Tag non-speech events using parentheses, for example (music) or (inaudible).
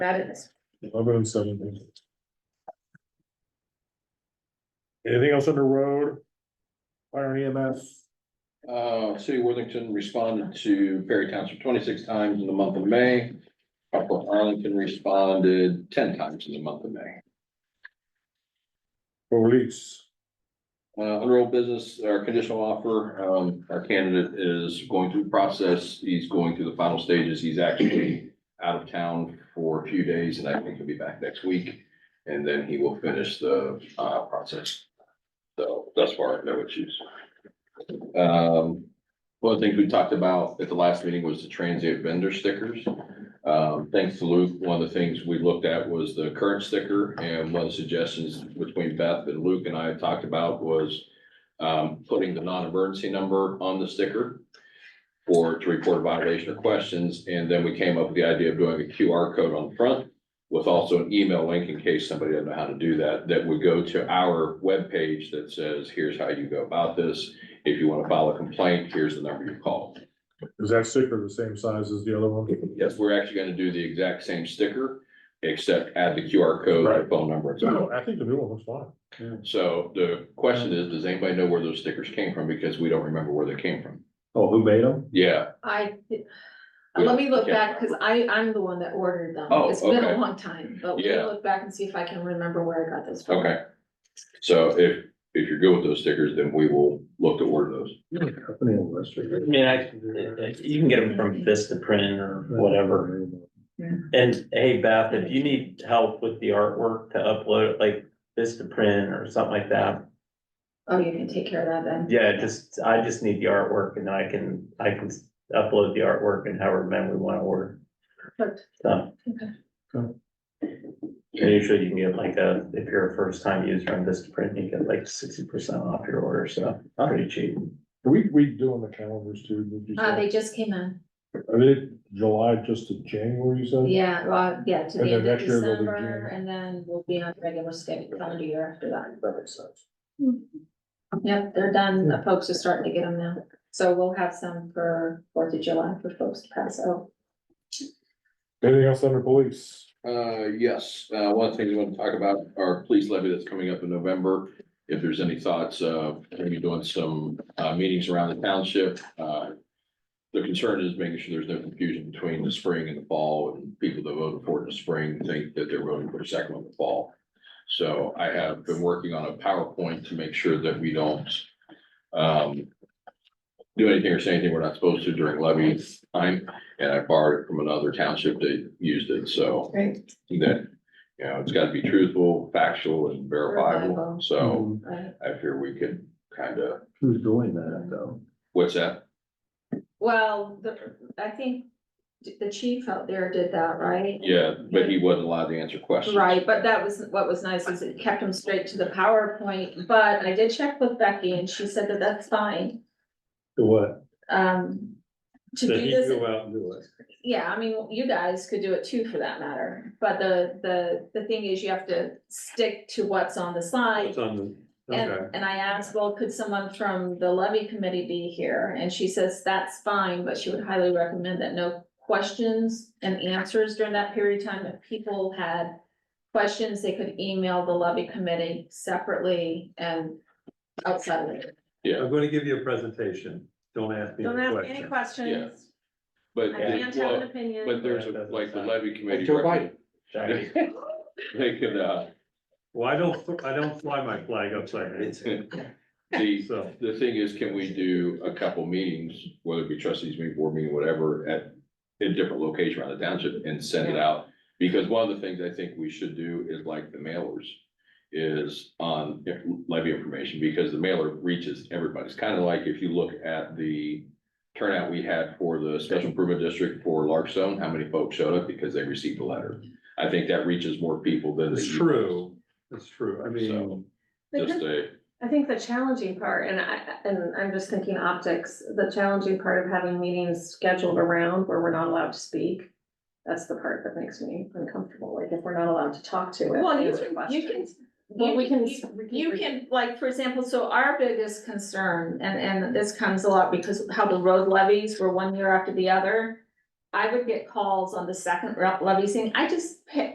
That is, I'll go with seventeen. Anything else under road? Fire and EMS, Uh, City of Worthington responded to Perry Township twenty-six times in the month of May. Upper Arlington responded ten times in the month of May. police, Uh, under old business, our conditional offer, um, our candidate is going through the process. He's going through the final stages. He's actually out of town for a few days and I think he'll be back next week. And then he will finish the, uh, process. So thus far, no issues. Um, one of the things we talked about at the last meeting was the transient vendor stickers. Um, thanks to Luke, one of the things we looked at was the current sticker, and one of the suggestions between Beth and Luke and I had talked about was um, putting the non-emergency number on the sticker for to report violation or questions, and then we came up with the idea of doing a QR code on the front with also an email link in case somebody doesn't know how to do that, that would go to our webpage that says, here's how you go about this. If you want to file a complaint, here's the number you call. is that sticker the same size as the other one? Yes, we're actually gonna do the exact same sticker, except add the QR code, Right. the phone number. and so on. No, I think the new one was fine. So the question is, does anybody know where those stickers came from? Because we don't remember where they came from. Oh, who made them? Yeah, I, let me look back, cause I, I'm the one that ordered them. Oh, It's been okay. a long time, but we Yeah. can look back and see if I can remember where I got this from. okay. So if, if you're good with those stickers, then we will look to order those. Company in West I mean, I, uh, you can get them from Vista Print or whatever. And hey, Beth, if you need help with the artwork to upload, like Vista Print or something like that, Oh, you can take care of that then? yeah, just, I just need the artwork and I can, I can upload the artwork and however many we want to order. Perfect. So. Okay. Cool. And Usually you can get like a, if you're a first time user on Vista Print, you get like sixty percent off your order, so pretty cheap. Are we redoing the calendars too? did you Uh, say? they just came in, Are they July just to January, you said? yeah, well, yeah, to And the end then of next year they'll be December, June. and then we'll be on regular schedule calendar year after that. That makes sense. Yep, they're done, Yeah. folks are starting to get them now, so we'll have some for Fourth of July for folks to pass out. Anything else under police? Uh, yes, uh, one of the things I want to talk about, our police levy that's coming up in November. If there's any thoughts, uh, maybe doing some, uh, meetings around the township, uh. The concern is making sure there's no confusion between the spring and the fall, and people that voted for it in the spring think that they're voting for the second one in the fall. So I have been working on a PowerPoint to make sure that we don't, um. Do anything or say anything we're not supposed to during levy time, and I borrowed it from another township that used it, so Great. that, you know, it's gotta be truthful, factual and verifiable, Verifiable. Oh, so Um, Right, I fear we could kind of, Mm-hmm. Who's doing that though? what's that? well, the, I think the chief out there did that, right? Yeah, but he wasn't allowed to answer questions. Right, but that was, what was nice is it kept them straight to the PowerPoint, but I did check with Becky and she said that that's fine. The what? Um, to do So he this, go out and do it. yeah, I mean, you guys could do it too for that matter, but the, the, the thing is you have to stick to what's on the slide. It's on the, And, okay. and I asked, well, could someone from the levy committee be here? And she says that's fine, but she would highly recommend that no questions and answers during that period of time. If people had questions, they could email the levy committee separately and outside of it. Yeah, I'm gonna give you a presentation, don't ask me Don't any ask any questions. questions. I but, can't have an well, but opinion. there's a- like the levy committee. Joe Biden. (laughs) They could, uh, Well, I don't, I don't fly my flag upside down, the, so, the thing is, can we do a couple meetings, whether it be trustees meeting, board meeting, whatever, at a different location around the township and send it out? Because one of the things I think we should do is like the mailers is on levy information, because the mailer reaches everybody. It's kind of like if you look at the turnout we had for the special improvement district for Larkstone, how many folks showed up because they received a letter. I think that reaches more people than. the it's emails. true, it's true, I So- mean, Just a, I think the challenging part, and I, and I'm just thinking optics, the challenging part of having meetings scheduled around where we're not allowed to speak. That's the part that makes me uncomfortable, like if we're not allowed to talk to it. Well, you answer can, you can questions. Well, we can. You can, like, for example, so our biggest concern, and, and this comes a lot because of how the road levies were one year after the other. I would get calls on the second re- levy saying, I just picked